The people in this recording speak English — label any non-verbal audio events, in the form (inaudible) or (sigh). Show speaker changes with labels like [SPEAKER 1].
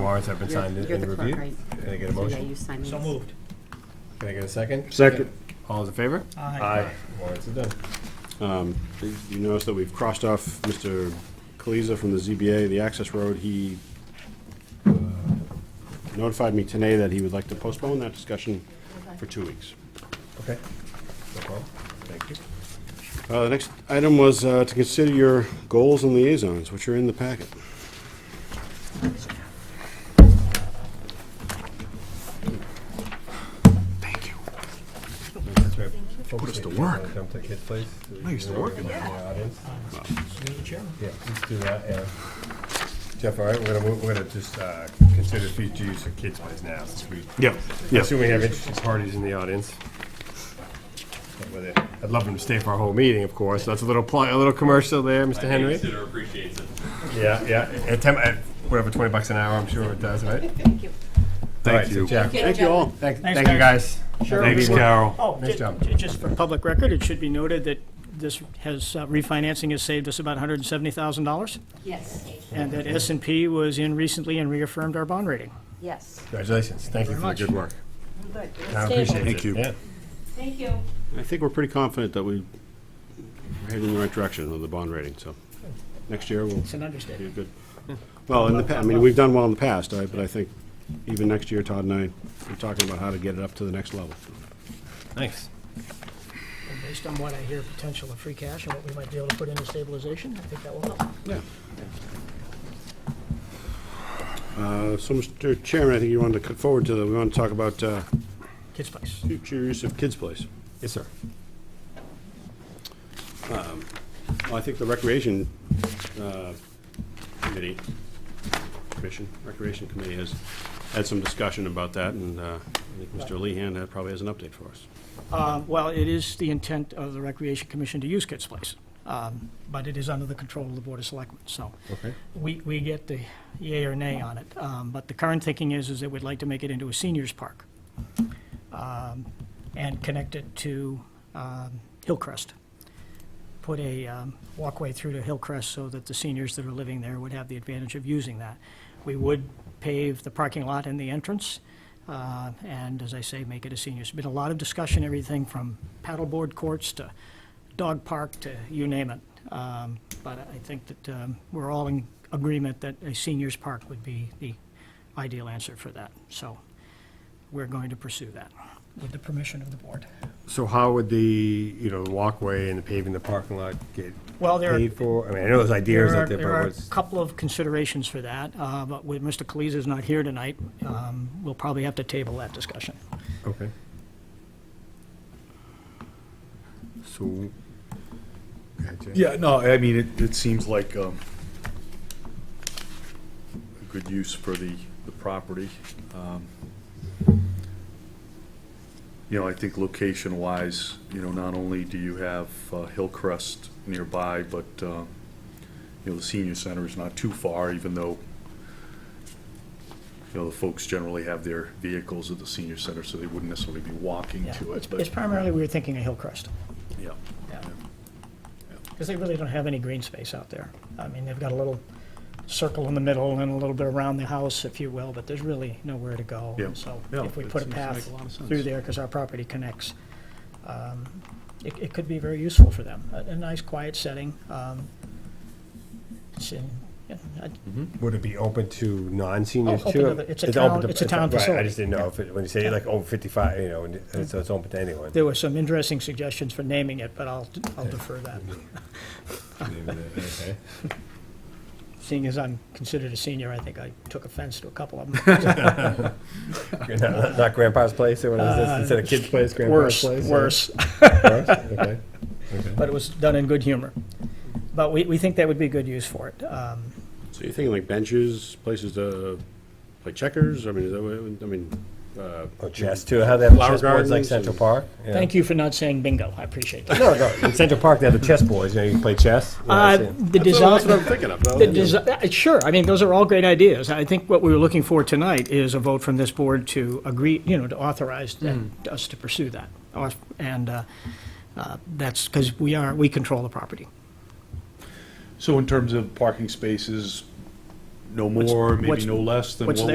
[SPEAKER 1] warrants have been
[SPEAKER 2] You're-
[SPEAKER 1] signed and
[SPEAKER 2] you're the
[SPEAKER 1] and
[SPEAKER 2] clerk,
[SPEAKER 1] reviewed?
[SPEAKER 2] right?
[SPEAKER 1] Can I get a
[SPEAKER 2] So yeah,
[SPEAKER 1] motion?
[SPEAKER 2] you sign these.
[SPEAKER 3] So moved.
[SPEAKER 1] Can I get a second?
[SPEAKER 4] Second.
[SPEAKER 1] All those in favor?
[SPEAKER 3] Aye.
[SPEAKER 1] Warrants are done.
[SPEAKER 4] Um, You notice that we've crossed off Mr. Kaliza from the ZBA, the access road. He uh, notified me today that he would like to postpone that discussion for two weeks.
[SPEAKER 1] Okay. No problem. Thank you.
[SPEAKER 4] Uh, The next item was uh, to consider your goals and liaisons, which are in the packet.
[SPEAKER 5] Thank you.
[SPEAKER 1] That's right. Put
[SPEAKER 5] us to work.
[SPEAKER 1] Come to Kid Place.
[SPEAKER 5] I used to work in
[SPEAKER 1] Yeah, audience.
[SPEAKER 3] You're the chairman.
[SPEAKER 1] Yeah, let's do that, yeah. Jeff, all right, we're gonna, we're gonna just uh, consider future use of Kid's Place now, since we
[SPEAKER 4] Yeah,
[SPEAKER 1] Assume we have interested parties in the audience. But with it- I'd love them to stay for our whole meeting, of course. That's a little pl- a little commercial there, Mr. Henry.
[SPEAKER 6] Consider appreciates it.
[SPEAKER 1] Yeah, yeah. At, ten, at whatever, twenty bucks an hour, I'm sure it does, right? All right,
[SPEAKER 5] Thank
[SPEAKER 1] so
[SPEAKER 5] you.
[SPEAKER 1] Jack,
[SPEAKER 4] Thank you all.
[SPEAKER 1] Thank,
[SPEAKER 3] Thanks,
[SPEAKER 1] thank you guys.
[SPEAKER 5] Thanks, Carol.
[SPEAKER 3] Oh,
[SPEAKER 1] Nice
[SPEAKER 3] ju-
[SPEAKER 1] job.
[SPEAKER 3] ju- just for public record, it should be noted that this has, uh, refinancing has saved us about $170,000,
[SPEAKER 2] Yes,
[SPEAKER 3] and that s and P was in recently and reaffirmed our bond rating.
[SPEAKER 2] yes.
[SPEAKER 1] Congratulations. Thank you for the good work.
[SPEAKER 2] Good.
[SPEAKER 1] I appreciate it.
[SPEAKER 5] Thank you.
[SPEAKER 1] Yeah.
[SPEAKER 2] Thank you.
[SPEAKER 4] I think we're pretty confident that we- we're heading in the right direction on the bond rating, so next year we'll
[SPEAKER 3] It's an understatement.
[SPEAKER 4] be good. Well, in the, pa- I mean, we've done well in the past, I- but I think even next year, Todd and I, we're talking about how to get it up to the next level.
[SPEAKER 1] Thanks.
[SPEAKER 3] And Based on what I hear, potential of free cash and what we might be able to put into stabilization, I think that will help.
[SPEAKER 4] Yeah. Uh, So, Mr. Chairman, I think you wanted to cut forward to, the- we want to talk about uh,
[SPEAKER 3] Kids Place.
[SPEAKER 4] future use of Kids Place.
[SPEAKER 1] Yes, sir.
[SPEAKER 4] Um, Well, I think the Recreation uh, Committee, Commission, Recreation Committee has had some discussion about that, and uh, I think Mr. Lehan uh, probably has an update for us.
[SPEAKER 3] Uh, Well, it is the intent of the Recreation Commission to use Kids Place, um, but it is under the control of the Board of Selectmen, so.
[SPEAKER 4] Okay.
[SPEAKER 3] We, we get the yay or nay on it, um, but the current thinking is, is that we'd like to make it into a seniors park um, and connect it to um, Hillcrest. Put a um, walkway through to Hillcrest so that the seniors that are living there would have the advantage of using that. We would pave the parking lot and the entrance, uh, and as I say, make it a seniors. Been a lot of discussion, everything from paddleboard courts to dog park to you name it. Um, But I think that um, we're all in agreement that a seniors park would be the ideal answer for that. So we're going to pursue that with the permission of the board.
[SPEAKER 1] So how would the, you know, the walkway and the paving the parking lot get
[SPEAKER 3] Well, there are-
[SPEAKER 1] paid for? I mean, I know there's ideas
[SPEAKER 3] There
[SPEAKER 1] out
[SPEAKER 3] are-
[SPEAKER 1] there,
[SPEAKER 3] There
[SPEAKER 1] but
[SPEAKER 3] are
[SPEAKER 1] what's?
[SPEAKER 3] a couple of considerations for that, uh, but with Mr. Kaliza's not here tonight, um, we'll probably have to table that discussion.
[SPEAKER 1] Okay. So. Gotcha.
[SPEAKER 5] Yeah, no, I mean, it, it seems like, um, a good use for the, the property. Um, You know, I think location-wise, you know, not only do you have uh, Hillcrest nearby, but, uh, you know, the senior center is not too far, even though, you know, the folks generally have their vehicles at the senior center, so they wouldn't necessarily be walking
[SPEAKER 3] Yeah.
[SPEAKER 5] to it,
[SPEAKER 3] It's
[SPEAKER 5] but,
[SPEAKER 3] it's primarily, we were thinking of Hillcrest.
[SPEAKER 5] yeah.
[SPEAKER 3] Because they really don't have any green space out there. I mean, they've got a little circle in the middle and a little bit around the house, if you will, but there's really nowhere to go.
[SPEAKER 5] Yeah.
[SPEAKER 3] So
[SPEAKER 5] Yeah,
[SPEAKER 3] if we
[SPEAKER 5] that
[SPEAKER 3] put a
[SPEAKER 5] seems to
[SPEAKER 3] path
[SPEAKER 5] make a lot of sense.
[SPEAKER 3] through there, because our property connects, um, it, it could be very useful for them. A, a nice, quiet setting. um, It's in, yeah, I-
[SPEAKER 1] Would it be open to non-seniors
[SPEAKER 3] Oh, open
[SPEAKER 1] too?
[SPEAKER 3] to the- it's a
[SPEAKER 1] open
[SPEAKER 3] town-
[SPEAKER 1] to-
[SPEAKER 3] it's a town
[SPEAKER 1] Right, I
[SPEAKER 3] facility,
[SPEAKER 1] just didn't know if, it- when you say like over fifty-five, you know, and it- so it's open to anyone.
[SPEAKER 3] there were some interesting suggestions for naming it, but I'll, I'll defer that,
[SPEAKER 1] Okay.
[SPEAKER 3] seeing as I'm considered a senior, I think I took offense to a
[SPEAKER 4] (laughs)
[SPEAKER 3] couple of them.
[SPEAKER 1] (laughs) Not not grandpa's place or what is this? Instead of kid's place, grandpa's
[SPEAKER 3] Uh,
[SPEAKER 1] place?
[SPEAKER 3] Worse,
[SPEAKER 1] yeah.
[SPEAKER 3] worse.
[SPEAKER 1] Worse? Okay.
[SPEAKER 3] but it was done in good humor. But we, we think that would be good use for it. Um,
[SPEAKER 4] So you're thinking like benches, places to play checkers? I mean, is that what, I mean, uh,
[SPEAKER 1] Or Oh, chess too, how they have
[SPEAKER 4] Flower
[SPEAKER 1] chessboards like
[SPEAKER 4] gardens
[SPEAKER 1] Central
[SPEAKER 4] and-
[SPEAKER 1] Park?
[SPEAKER 3] Thank you for not saying bingo. I
[SPEAKER 4] (laughs)
[SPEAKER 3] appreciate that.
[SPEAKER 1] No, no, in Central Park, they have the chessboards, you know, you can play chess. you know,
[SPEAKER 3] Uh,
[SPEAKER 1] so-
[SPEAKER 3] the
[SPEAKER 4] that's what that's what I'm
[SPEAKER 3] design,
[SPEAKER 4] thinking of. though.
[SPEAKER 3] the desi- uh, sure, I mean, those are all great ideas. I think what we were looking for tonight is a vote from this board to agree, you know, to authorize that-
[SPEAKER 4] Hmm.
[SPEAKER 3] us to pursue that. Or- And uh, uh, that's because we are, we control the property.
[SPEAKER 5] So in terms of parking spaces, no more, maybe
[SPEAKER 3] what's-
[SPEAKER 5] no less than
[SPEAKER 3] what's
[SPEAKER 5] what